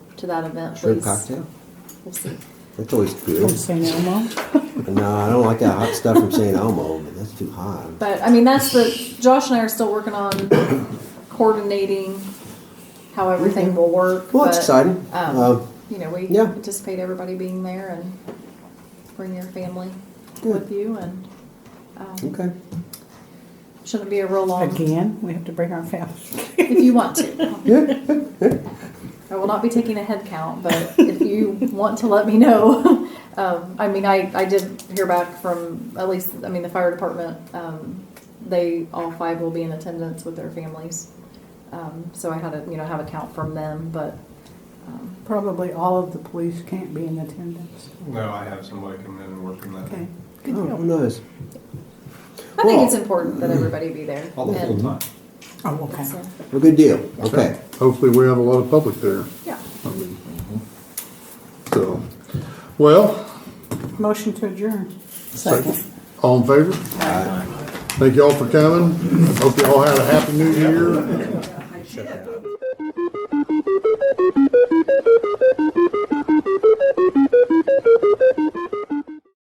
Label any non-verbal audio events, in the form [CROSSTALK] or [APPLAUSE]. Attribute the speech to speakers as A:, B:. A: to that event,
B: Shrimp
A: please.
B: cocktail.
A: We'll see.
B: That's always
C: From
B: good.
C: St. Elmo?
B: no, I don't like that hot stuff from St. Elmo. Man, that's too hot.
A: But I mean, that's the Josh and I are still working on coordinating how everything will work.
B: Well, it's
A: but,
B: exciting.
A: Um,
B: Um,
A: you know, we
B: yeah.
A: anticipate everybody being there and bring your family
B: Good.
A: with you, and um,
B: Okay.
A: shouldn't be a real long
C: Again, we have to bring our family. [LAUGHS]
A: if you want to. [LAUGHS]
B: Yeah.
A: I will not be taking a head count, but if
D: [LAUGHS]
A: you want to let me know, [LAUGHS] um, I mean, I, I did hear back from at least, I mean, the fire department, um, they, all five will be in attendance with their families. Um, so I had to, you know, have a count from them, but, um,
C: Probably all of the police can't be in attendance.
D: No, I have somebody come in and work on
C: Okay.
D: that.
C: Good
B: Oh,
C: deal.
B: nice.
A: I think it's
B: Well-
A: important that everybody be there.
D: All the full
A: And
D: time.
C: Oh, okay.
A: it's, uh,
B: A good deal. Okay.
E: Hopefully, we have a lot of public there.
A: Yeah,
E: I mean, So, well,
C: Motion to adjourn.
E: Second. all in favor?
B: All right.
E: Thank y'all for coming. Hope y'all had a happy new year.